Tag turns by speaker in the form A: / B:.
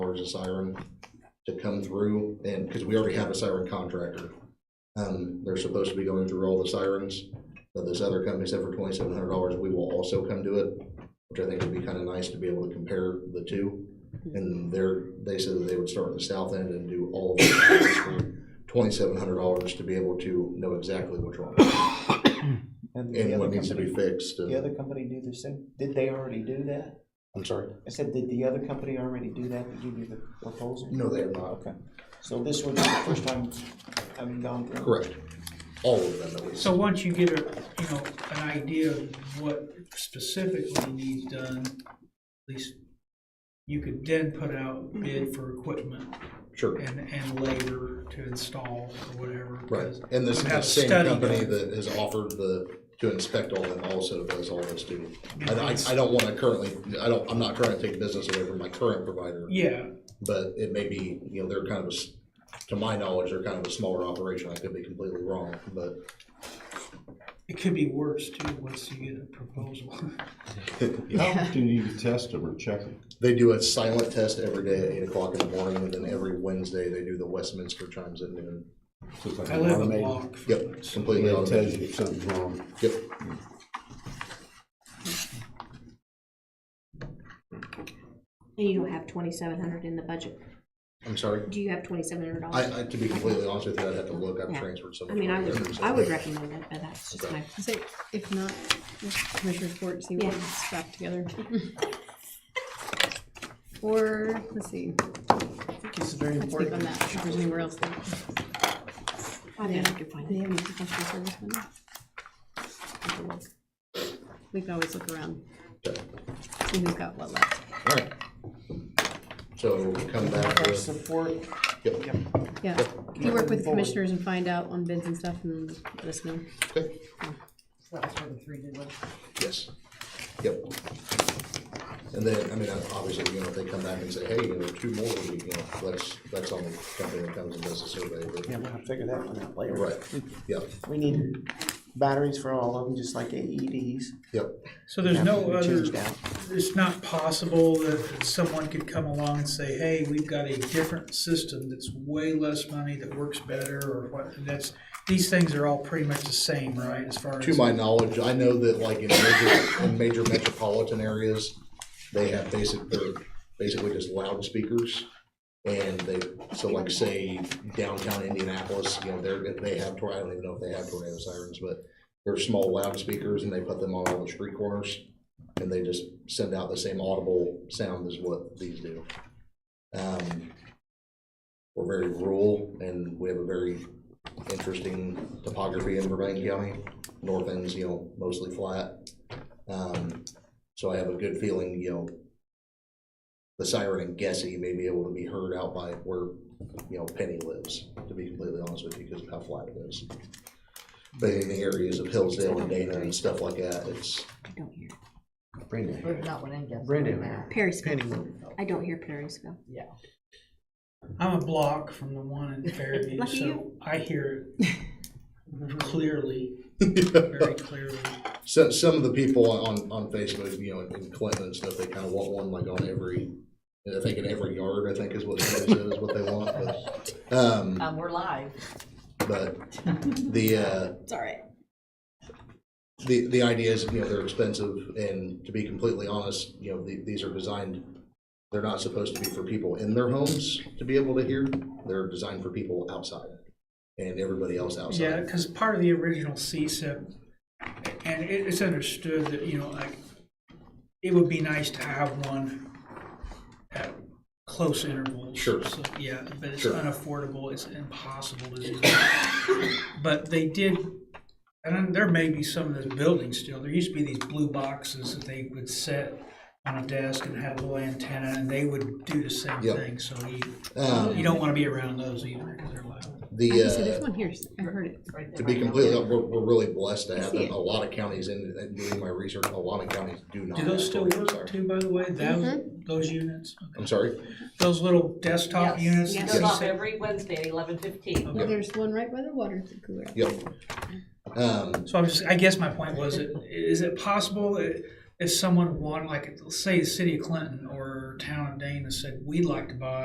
A: hours of siren to come through, and, because we already have a siren contractor. Um, they're supposed to be going through all the sirens, but this other company said for twenty-seven hundred dollars, we will also come do it, which I think would be kind of nice to be able to compare the two. And they're, they said that they would start at the south end and do all of it for twenty-seven hundred dollars to be able to know exactly what's wrong
B: And the
A: and
B: other
A: what needs to be
B: company,
A: fixed. and-
B: the other company do the same, did they already do that?
C: I'm sorry.
B: I said, did the other company already do that to give you the proposal? Oh,
A: No, they have not.
B: Okay, so this would be the first time having gone through.
A: Correct. All of them at least.
D: So once you get a, you know, an idea of what specifically needs done, at least you could then put out
A: Mm-hmm.
D: bid for equipment
A: Sure.
D: and, and labor to install or whatever.
A: Right.
D: 'cause
A: And this is
D: you
A: the
D: have to
A: same
D: study
A: company
D: them.
A: that has offered the, to inspect all them also does all this too. I, I, I don't wanna currently, I don't, I'm not trying to take business away from my current provider,
D: Yeah,
A: but it may be, you know, they're kind of, a s- to my knowledge, they're kind of a smaller operation. I could be completely wrong, but
D: it could be worse too, once you get a proposal.
E: How often do you test them or check them?
A: they do a silent test every day at eight o'clock in the morning and then every Wednesday they do the Westminster chimes at noon.
E: So it's like
D: I live a
E: automated-
D: block from
A: Yep,
D: it, so
A: completely
E: It tells you
A: automated.
E: if something's wrong.
A: Yep.
F: And you don't have twenty-seven hundred in the budget.
A: I'm sorry.
F: Do you have twenty-seven hundred
A: I,
F: dollars?
A: I, to be completely honest with you, I'd have to look, I've
F: Yeah.
A: transferred so
F: I
A: much.
F: mean, I
A: money
F: would,
A: over,
F: I would
A: so-
F: recommend it, but that's just my,
G: So if not, Commissioner's Court, see what
F: Yeah.
G: we scrap together. Or, let's see,
B: This is very
G: let's think on
B: important.
G: that, if there's anywhere else. that-
F: I think I could find
G: They
F: it.
G: have any professional service money? Take a look. We can always look around,
A: Okay.
G: see who's got what left.
A: All right. So come back
B: Our
A: with,
B: support,
A: yep,
B: yep,
G: Yeah, if you work with
B: Moving forward.
G: commissioners and find out on bids and stuff and let us know.
A: okay,
H: That's where the three did one.
A: yes, yep. And then, I mean, obviously, you know, if they come back and say, hey, you know, two more, would be, you know, that's, that's on the company that comes and does the survey,
B: yeah,
A: but,
B: we'll have to figure that one out later.
A: right, yep,
B: We need batteries for all of them, just like AEDs.
A: yep.
D: So there's no
B: Have to be
D: other,
B: changed out.
D: it's not possible that someone could come along and say, hey, we've got a different system that's way less money, that works better, or what, and that's, these things are all pretty much the same, right, as far as.
A: To my knowledge, I know that like in major, in major metropolitan areas, they have basic, they're basically just loudspeakers. And they, so like say downtown Indianapolis, you know, they're, they have, tor- I don't even know if they have tornado sirens, but they're small loudspeakers and they put them on all the street corners. And they just send out the same audible sound as what these do. Um, We're very rural and we have a very interesting topography in Burbank County north end's, you know, mostly flat. Um, so I have a good feeling, you know, the siren and Gessie may be able to be heard out by where, you know, Penny lives, to be completely honest with you, because of how flat it is. But in the areas of Hillsdale and Dana and stuff like that, it's,
F: I don't hear
B: Brandon.
H: Not what I guessed.
B: Brandon.
F: Perrysville. I don't hear Perrysville.
H: Yeah.
D: I'm a block from the one in Fairview,
F: Lucky
D: so
F: you.
D: I hear it clearly, very clearly.
A: so, some of the people on, on Facebook, you know, in Clinton and stuff, they kind of want one like on every, I think in every yard, I think is what somebody said is what they want, but, um,
H: Um, we're live.
A: but the, uh,
G: It's all right.
A: the, the idea is, you know, they're expensive, and to be completely honest, you know, the- these are designed, they're not supposed to be for people in their homes to be able to hear. They're designed for people outside and everybody else
D: Yeah,
A: outside.
D: because part of the original CSIP, and it- it's understood that, you know, like, it would be nice to have one at close intervals.
A: Sure.
D: So, Yeah, but it's
A: Sure.
D: unaffordable, it's impossible to do. But they did, and then there may be some of those buildings still, there used to be these blue boxes that they would set on a desk and have a little antenna, and they would do the same
A: Yep.
D: thing, so you, you
A: Um,
D: don't want to be around those either, because they're loud.
G: I
A: The,
G: just said, there's
A: uh,
G: one here, I heard it.
A: to be completely, we're, we're really blessed to have
G: see
A: them.
G: it.
A: A lot of counties, in in doing my research, a lot of counties do not.
D: Do those still
A: have them.
D: work too, by the way, those, those units?
A: I'm sorry?
D: Those little desktop
H: Yes.
D: units?
F: Yes.
D: that
H: Goes
D: you
H: off
D: said-
H: every Wednesday at eleven fifteen.
G: Well, there's one right by the water cooler.
A: Yep. Um,
D: So I'm just, I guess my point was, it- is it possible i- if someone wanted, like, say, the city of Clinton or town of Dana said, we'd like to buy